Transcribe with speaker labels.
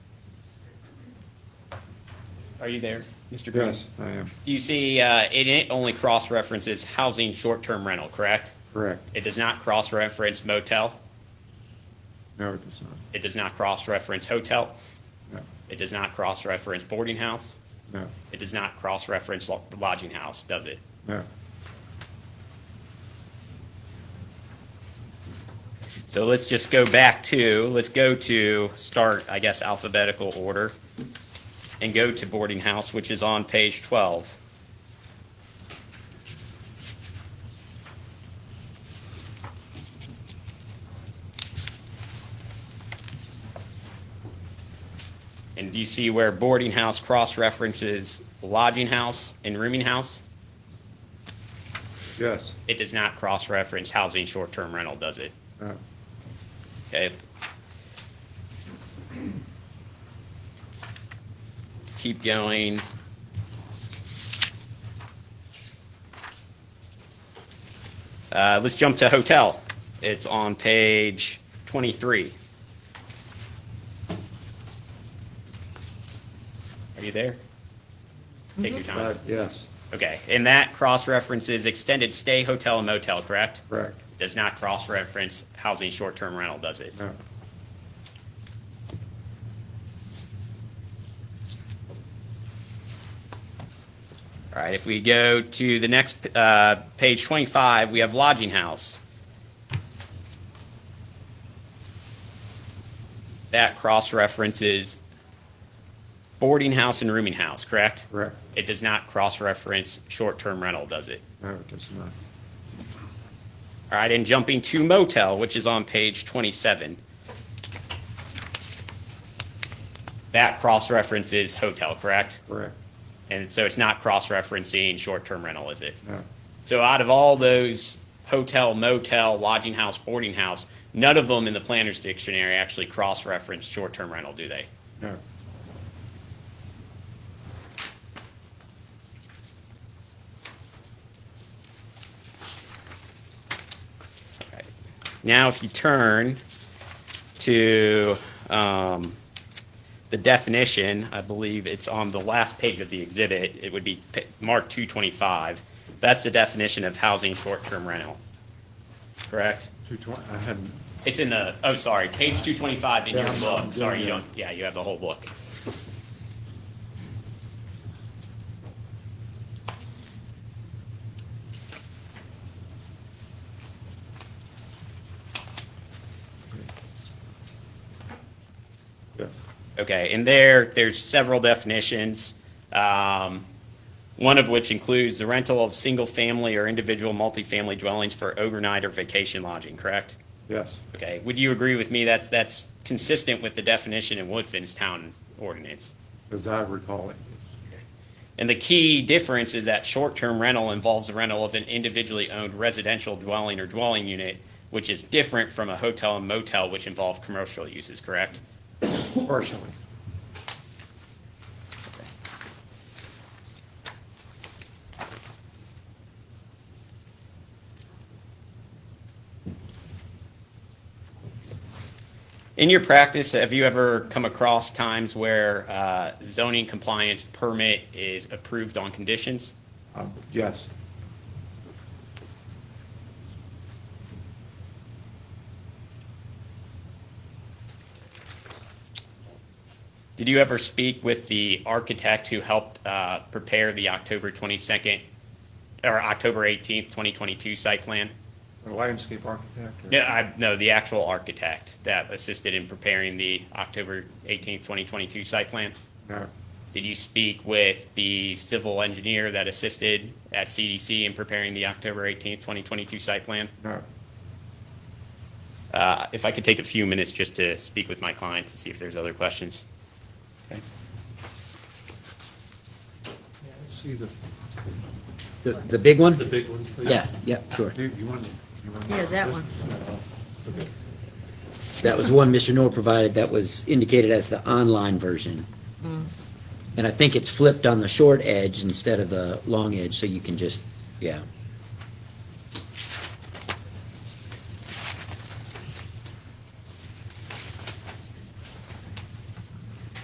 Speaker 1: Are you there, Mr. Green?
Speaker 2: Yes, I am,
Speaker 1: You see, uh, it- it only cross-references housing short-term rental, correct?
Speaker 2: correct.
Speaker 1: It does not cross-reference motel.
Speaker 2: No, it does not.
Speaker 1: It does not cross-reference hotel.
Speaker 2: No,
Speaker 1: It does not cross-reference boarding house.
Speaker 2: no,
Speaker 1: It does not cross-reference lo- lodging house, does it?
Speaker 2: no.
Speaker 1: So let's just go back to, let's go to, start, I guess, alphabetical order, and go to boarding house, which is on page 12. And do you see where boarding house cross-references lodging house and rooming house?
Speaker 2: Yes,
Speaker 1: It does not cross-reference housing short-term rental, does it?
Speaker 2: no,
Speaker 1: Okay. Let's Keep going. Uh, let's jump to hotel. It's on page twenty-three. Are you there? Take your
Speaker 2: Uh,
Speaker 1: time.
Speaker 2: yes,
Speaker 1: Okay, and that cross-references extended stay hotel and motel, correct?
Speaker 2: correct,
Speaker 1: Does not cross-reference housing short-term rental, does it?
Speaker 2: no,
Speaker 1: All right, if we go to the next, uh, page 25, we have lodging house. That cross-references boarding house and rooming house, correct?
Speaker 2: correct.
Speaker 1: It does not cross-reference short-term rental, does it?
Speaker 2: No, it does not.
Speaker 1: All right, and jumping to motel, which is on page 27. That cross-references hotel, correct?
Speaker 2: Correct,
Speaker 1: And so it's not cross-referencing short-term rental, is it?
Speaker 2: no,
Speaker 1: So out of all those hotel, motel, lodging house, boarding house, none of them in the planner's dictionary actually cross-reference short-term rental, do they?
Speaker 2: no,
Speaker 1: Now, if you turn to um, the definition, I believe it's on the last page of the exhibit, it would be p- marked 225. That's the definition of housing short-term rental, correct?
Speaker 2: two twenty, I hadn't,
Speaker 1: It's in the, oh, sorry, page 225 in your
Speaker 2: Yeah.
Speaker 1: book. Sorry, you
Speaker 2: Yeah.
Speaker 1: don't, yeah, you have the whole book.
Speaker 2: yes,
Speaker 1: Okay, and there, there's several definitions, um, one of which includes the rental of single-family or individual multifamily dwellings for overnight or vacation lodging, correct?
Speaker 2: yes,
Speaker 1: Okay, would you agree with me that's, that's consistent with the definition in Woodfin's town ordinance?
Speaker 2: as I recall it.
Speaker 1: And the key difference is that short-term rental involves the rental of an individually owned residential dwelling or dwelling unit, which is different from a hotel and motel, which involve commercial uses, correct?
Speaker 2: Partially,
Speaker 1: In your practice, have you ever come across times where uh, zoning compliance permit is approved on conditions?
Speaker 2: um, yes,
Speaker 1: Did you ever speak with the architect who helped uh, prepare the October 22nd, or October 18th, 2022 site plan?
Speaker 2: a landscape architect. or-
Speaker 1: No, I, no, the actual architect that assisted in preparing the October 18th, 2022 site plan?
Speaker 2: No,
Speaker 1: Did you speak with the civil engineer that assisted at CDC in preparing the October 18th, 2022 site plan?
Speaker 2: no,
Speaker 1: Uh, If I could take a few minutes just to speak with my client to see if there's other questions.
Speaker 2: let's see the,
Speaker 3: The, the big one?
Speaker 4: The big one, please.
Speaker 3: Yeah, yeah, sure.
Speaker 2: you you want, you want.
Speaker 5: Yeah, that
Speaker 2: this? Uh,
Speaker 5: one.
Speaker 2: Okay.
Speaker 3: That was one Mr. Noor provided that was indicated as the online version. And I think it's flipped on the short edge instead of the long edge, so you can just, yeah.